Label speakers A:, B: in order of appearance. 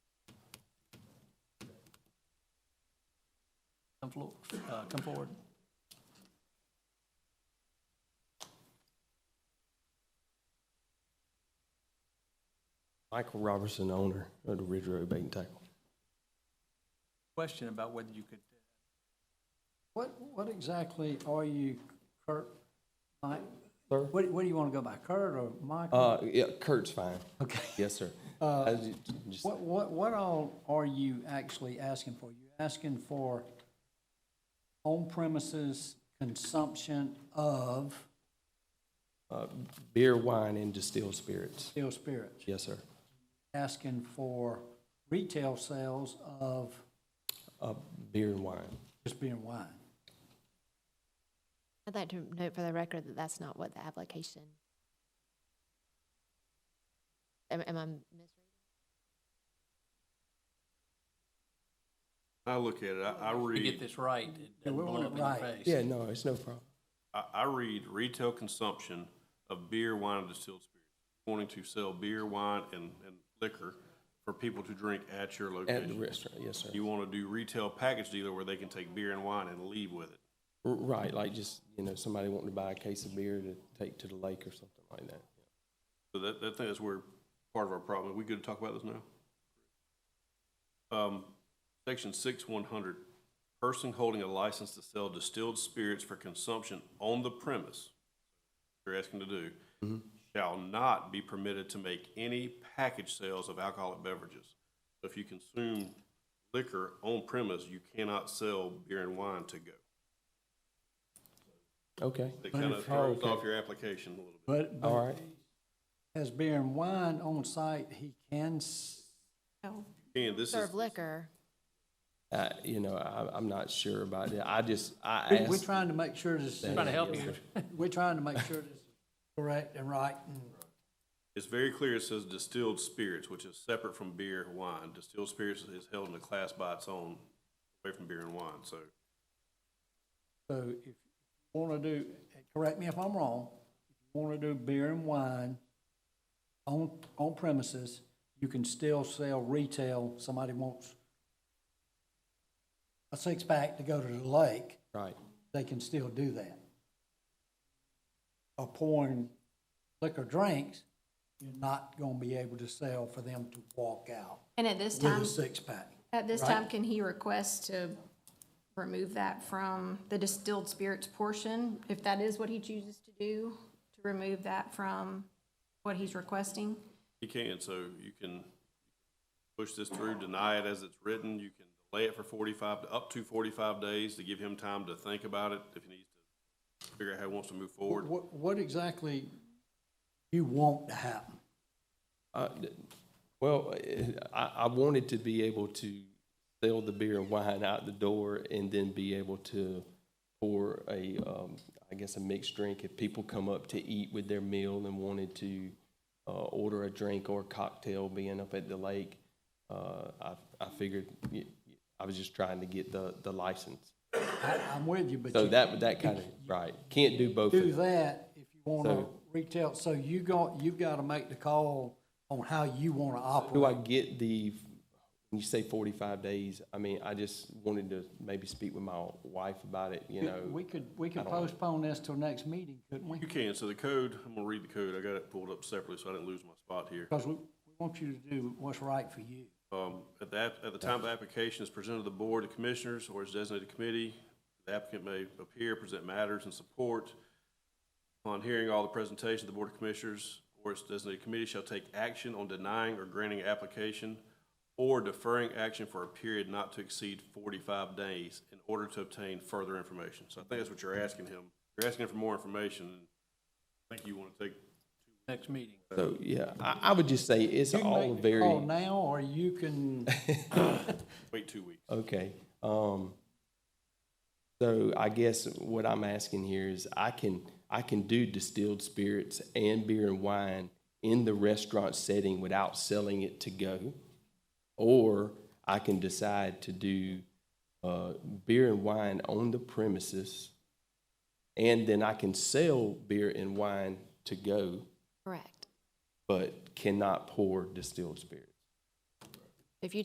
A: come forward, come forward.
B: Michael Robertson, owner of the Ridge Road Bait and Tackle.
A: Question about whether you could,
C: What, what exactly are you, Kurt, Mike?
B: Sir?
C: What, what do you want to go by, Kurt or Michael?
B: Uh, yeah, Kurt's fine.
C: Okay.
B: Yes, sir. I ju- just-
C: What, what, what all are you actually asking for? You asking for on premises consumption of
B: uh, Beer, wine, and distilled spirits.
C: still spirits?
B: Yes, sir.
C: Asking for retail sales of
B: Uh, beer and wine.
C: just beer and wine?
D: I'd like to note for the record that that's not what the application. Am, am I misreading?
E: I look at it, I, I
A: to get
E: read,
A: this right, it doesn't
C: we
A: blow
C: want
A: up
C: it
A: in your
C: right.
A: face.
B: Yeah, no, it's no problem.
E: I, I read retail consumption of beer, wine, and distilled spirits. Wanting to sell beer, wine, and, and liquor for people to drink at your
B: At the
E: location.
B: restaurant, yes, sir.
E: You wanna do retail package dealer where they can take beer and wine and leave with it.
B: R- Right, like just, you know, somebody wanting to buy a case of beer to take to the lake or something like that.
E: So that, that thing is where part of our problem, we good to talk about this now? Um, section six one hundred, person holding a license to sell distilled spirits for consumption on the premise, you're asking to do, shall not be permitted to make any package sales of alcoholic beverages. So If you consume liquor on premise, you cannot sell beer and wine to go.
B: Okay,
E: That
C: But
E: kind of
C: if-
E: throws
B: okay.
E: off your application a little bit.
C: But,
B: all
C: but
B: right.
C: as beer and wine on site, he can s-
E: And this is,
D: Serve liquor.
B: Uh, you know, I, I'm not sure about that. I just, I
C: We- We're
B: asked.
C: trying to make sure this is.
A: Trying to help
B: Yes,
A: you.
B: sir.
C: We're trying to make sure this is correct and right and
E: It's very clear, it says distilled spirits, which is separate from beer, wine. Distilled spirits is held in a class by its own, away from beer and wine, so.
C: So if you want to do, correct me if I'm wrong, if you want to do beer and wine on, on premises, you can still sell retail, somebody wants a six-pack to go to the lake,
B: Right.
C: they can still do that. Or pouring liquor drinks, you're not going to be able to sell for them to walk out
F: And at this
C: with
F: time,
C: a six-pack.
F: at this
C: right?
F: time, can he request to remove that from the distilled spirits portion? If that is what he chooses to do, to remove that from what he's requesting?
E: You can, so you can push this through, deny it as it's written. You can delay it for forty-five, to up to forty-five days to give him time to think about it, if he needs to figure out how he wants to move forward.
C: What, what exactly you want to happen?
B: Uh, th- Well, eh, I, I wanted to be able to sell the beer and wine out the door and then be able to pour a, um, I guess, a mixed drink. If people come up to eat with their meal and wanted to, uh, order a drink or cocktail being up at the lake, uh, I, I figured, y- y- I was just trying to get the, the license.
C: I, I'm with you, but
B: So
C: you
B: that, that kind of, right, can't do both of
C: do
B: them.
C: that if you want to
B: So-
C: retail, so you go, you've got to make the call on how you want to
B: Do I
C: operate.
B: get the, when you say forty-five days, I mean, I just wanted to maybe speak with my wife about it, you know?
C: We could, we could
B: I don't know.
C: postpone this till next meeting, couldn't we?
E: You can, so the code, I'm gonna read the code. I got it pulled up separately, so I didn't lose my spot here.
C: Because we, we want you to do what's right for you.
E: Um, At the, app- at the time the application is presented to the Board of Commissioners or its designated committee, the applicant may appear, present matters in support. Upon hearing all the presentations, the Board of Commissioners or its designated committee shall take action on denying or granting application or deferring action for a period not to exceed forty-five days in order to obtain further information. So I think that's what you're asking him. You're asking him for more information. and I think you want to take,
A: Next meeting.
B: So, yeah, I, I would just say it's
C: You can
B: all
C: make the call
B: very,
C: Now, or you can,
E: wait two weeks.
B: okay. Um, so I guess what I'm asking here is I can, I can do distilled spirits and beer and wine in the restaurant setting without selling it to go. Or I can decide to do uh, beer and wine on the premises, and then I can sell beer and wine to go,
D: Correct.
B: but cannot pour distilled spirits.